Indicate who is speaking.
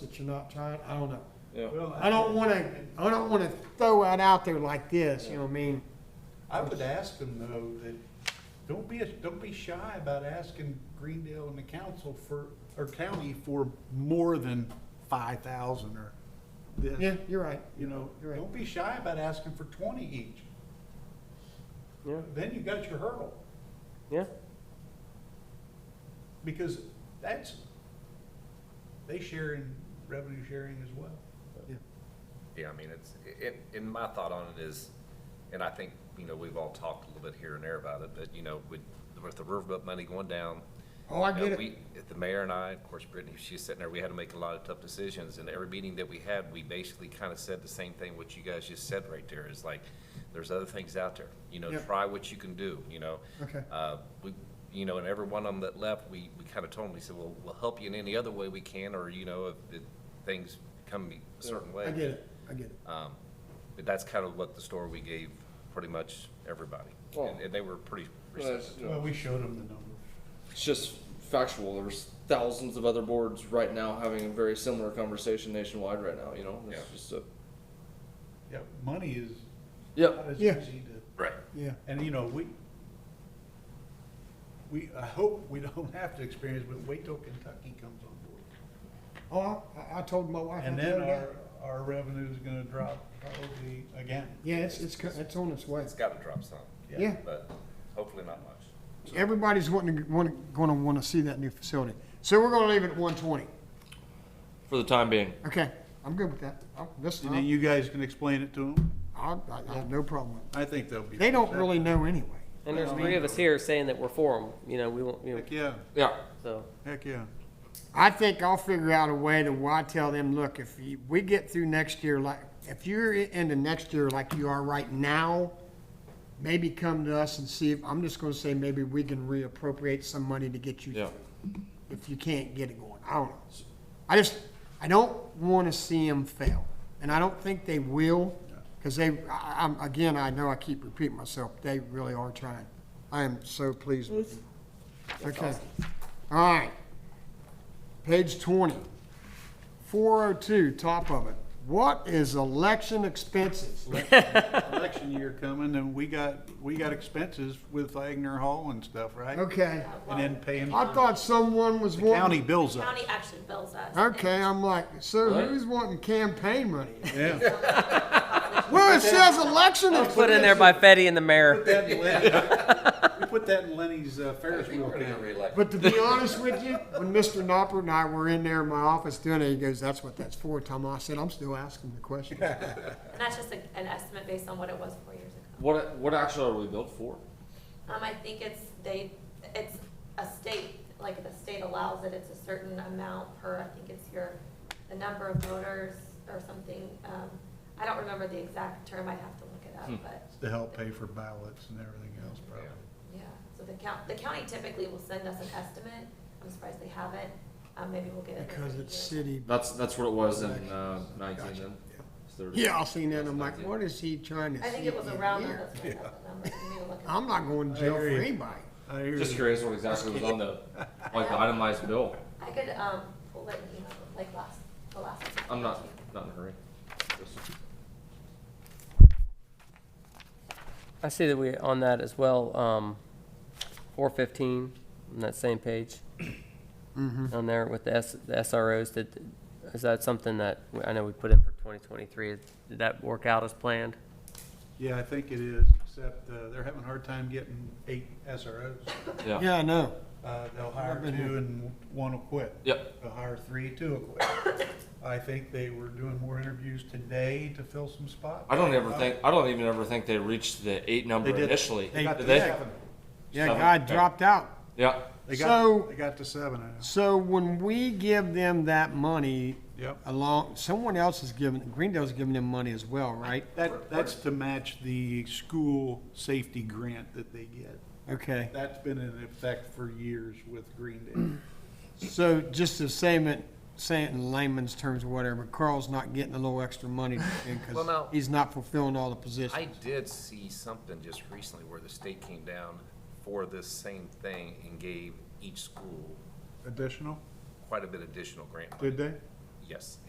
Speaker 1: that you're not trying, I don't know.
Speaker 2: Yeah.
Speaker 3: Well,
Speaker 1: I don't wanna, I don't wanna throw it out there like this, you know what I mean?
Speaker 3: I would ask them though, that, don't be, don't be shy about asking Greendale and the council for, or county for more than five thousand or
Speaker 1: Yeah,
Speaker 3: this.
Speaker 1: you're right.
Speaker 3: You know,
Speaker 1: You're right.
Speaker 3: don't be shy about asking for twenty each.
Speaker 2: Yeah.
Speaker 3: Then you got your hurdle,
Speaker 2: Yeah.
Speaker 3: because that's, they share in revenue sharing as well.
Speaker 4: Yeah, I mean, it's, and, and my thought on it is, and I think, you know, we've all talked a little bit here and there about it, but, you know, with, with the riverboat money going down.
Speaker 1: Oh, I
Speaker 4: you know,
Speaker 1: get it.
Speaker 4: we- The mayor and I, of course Brittany, she's sitting there, we had to make a lot of tough decisions, and every meeting that we had, we basically kind of said the same thing what you guys just said right there, is like, there's other things out there, you know,
Speaker 1: Yep.
Speaker 4: try what you can do, you know?
Speaker 1: Okay.
Speaker 4: Uh, we, you know, and every one of them that left, we, we kind of told them, we said, well, we'll help you in any other way we can, or, you know, if, if things come a certain way.
Speaker 1: I get it. I get it.
Speaker 4: Um, But that's kind of what the story we gave pretty much everybody. And
Speaker 2: Oh.
Speaker 4: and they were pretty
Speaker 2: Well,
Speaker 4: receptive.
Speaker 2: it's, you know,
Speaker 3: Well, we showed them the numbers.
Speaker 2: it's just factual. There's thousands of other boards right now having a very similar conversation nationwide right now. You know, it's
Speaker 4: Yeah.
Speaker 2: just a
Speaker 3: Yeah, money is
Speaker 2: yeah.
Speaker 3: not as
Speaker 1: Yeah.
Speaker 3: easy to.
Speaker 4: Right.
Speaker 1: Yeah.
Speaker 3: And you know, we, we, I hope we don't have to experience, but wait till Kentucky comes on board.
Speaker 1: Oh, I, I told my wife.
Speaker 3: And
Speaker 1: that the
Speaker 3: then
Speaker 1: other day.
Speaker 3: our, our revenue is gonna drop probably again.
Speaker 1: Yeah, it's, it's, co- it's on its way.
Speaker 4: It's got to drop some,
Speaker 1: Yeah.
Speaker 4: but hopefully not much.
Speaker 1: Everybody's wanting to, wanna, gonna wanna see that new facility. So we're gonna leave it at one twenty.
Speaker 2: For the time being,
Speaker 1: Okay, I'm good with that. I'll- This,
Speaker 3: And then you guys can explain it to them?
Speaker 1: I, I I have no problem with it.
Speaker 3: I think they'll be.
Speaker 1: They don't really know anyway.
Speaker 5: And there's
Speaker 3: Well,
Speaker 5: three
Speaker 3: I-
Speaker 5: of us here saying that we're for them, you know, we won't, you know,
Speaker 3: Heck, yeah,
Speaker 2: yeah.
Speaker 5: so.
Speaker 3: heck, yeah.
Speaker 1: I think I'll figure out a way to, why tell them, look, if you, we get through next year, like, if you're i- into next year like you are right now, maybe come to us and see if, I'm just gonna say maybe we can reappropriate some money to get you
Speaker 2: Yeah.
Speaker 1: through. If you can't get it going, I don't know. I just, I don't wanna see them fail, and I don't think they will, cause they, I, I'm, again, I know I keep repeating myself, they really are trying. I am so pleased with them. Okay, all right. Page 20, 402, top of it. What is election expenses?
Speaker 3: Election year coming and we got, we got expenses with Wagner Hall and stuff, right?
Speaker 1: Okay,
Speaker 3: And then paying
Speaker 1: I
Speaker 3: for
Speaker 1: thought someone was
Speaker 3: county
Speaker 1: wanting.
Speaker 3: bills up.
Speaker 6: County actually bills us.
Speaker 1: Okay, I'm like, so
Speaker 2: What?
Speaker 1: who's wanting campaign money?
Speaker 3: Yeah.
Speaker 1: Well, it says election
Speaker 5: Put in there
Speaker 1: expenses,
Speaker 5: by Fetty and the mayor.
Speaker 3: Put that in Lenny- We put that in Lenny's uh, Ferris wheel account.
Speaker 1: but to be honest with you, when Mr. Knopper and I were in there in my office doing it, he goes, that's what that's for, Tom. I said, I'm still asking the question.
Speaker 6: And that's just a- an estimate based on what it was four years ago.
Speaker 2: What what actually are we built for?
Speaker 6: Um, I think it's, they, it's a state, like the state allows it, it's a certain amount per, I think it's your, the number of voters or something. Um, I don't remember the exact term, I'd have to look it
Speaker 2: Hmm.
Speaker 6: up, but,
Speaker 3: To help pay for ballots and everything else probably.
Speaker 6: yeah. So the count, the county typically will send us an estimate, I'm surprised they haven't, um, maybe we'll get it.
Speaker 1: Because it's
Speaker 6: next year.
Speaker 1: city.
Speaker 2: That's that's what it was in uh, nineteen
Speaker 1: Gotcha.
Speaker 2: then. It's 30.
Speaker 1: Yeah, I seen that. I'm like, what is he trying to
Speaker 6: I think it
Speaker 1: see
Speaker 6: was
Speaker 1: in
Speaker 6: around,
Speaker 1: here?
Speaker 6: that's what I thought the number, you need to look it up.
Speaker 1: I'm not going to jail for
Speaker 3: I hear you.
Speaker 1: anybody.
Speaker 3: I hear
Speaker 2: Just
Speaker 3: you.
Speaker 2: curious what exactly was on the like the itemized bill.
Speaker 6: I could, um, pull it, you know, like last, the last. one.
Speaker 2: I'm not not in a hurry. Just-
Speaker 5: I see that we, on that as well, um, four fifteen, on that same page. On there with the S, the SROs, did, is that something that, we- I know we put in for twenty twenty-three, did that work out as planned?
Speaker 3: Yeah, I think it is, except uh, they're having a hard time getting eight SROs.
Speaker 2: Yeah.
Speaker 1: Yeah, I know.
Speaker 3: Uh, They'll hire
Speaker 1: I've been
Speaker 3: two
Speaker 1: here.
Speaker 3: and one will quit.
Speaker 2: Yep.
Speaker 3: They'll hire three, two will quit. I think they were doing more interviews today to fill some spots.
Speaker 2: I don't ever think I don't even ever think they reached the eight number
Speaker 3: They did.
Speaker 2: initially.
Speaker 3: They got to
Speaker 2: did they?
Speaker 3: seven.
Speaker 1: Yeah,
Speaker 2: Seven.
Speaker 1: guy
Speaker 2: Okay.
Speaker 1: dropped out.
Speaker 2: Yeah.
Speaker 3: They got,
Speaker 1: So-
Speaker 3: they got to seven. I know.
Speaker 1: So when we give them that money
Speaker 3: Yep.
Speaker 1: along, someone else is giving, Greendale's giving them money as well, right?
Speaker 3: That, that's to match the school safety grant that they get.
Speaker 1: Okay,
Speaker 3: That's been in effect for years with Greendale.
Speaker 1: so just to say it, say it in layman's terms or whatever, Carl's not getting a little extra money
Speaker 4: Well,
Speaker 1: because
Speaker 4: now-
Speaker 1: he's not fulfilling all the
Speaker 4: I
Speaker 1: positions.
Speaker 4: did see something just recently where the state came down for this same thing and gave each school
Speaker 3: Additional,
Speaker 4: quite a bit additional grant money.
Speaker 3: did they?
Speaker 4: yes,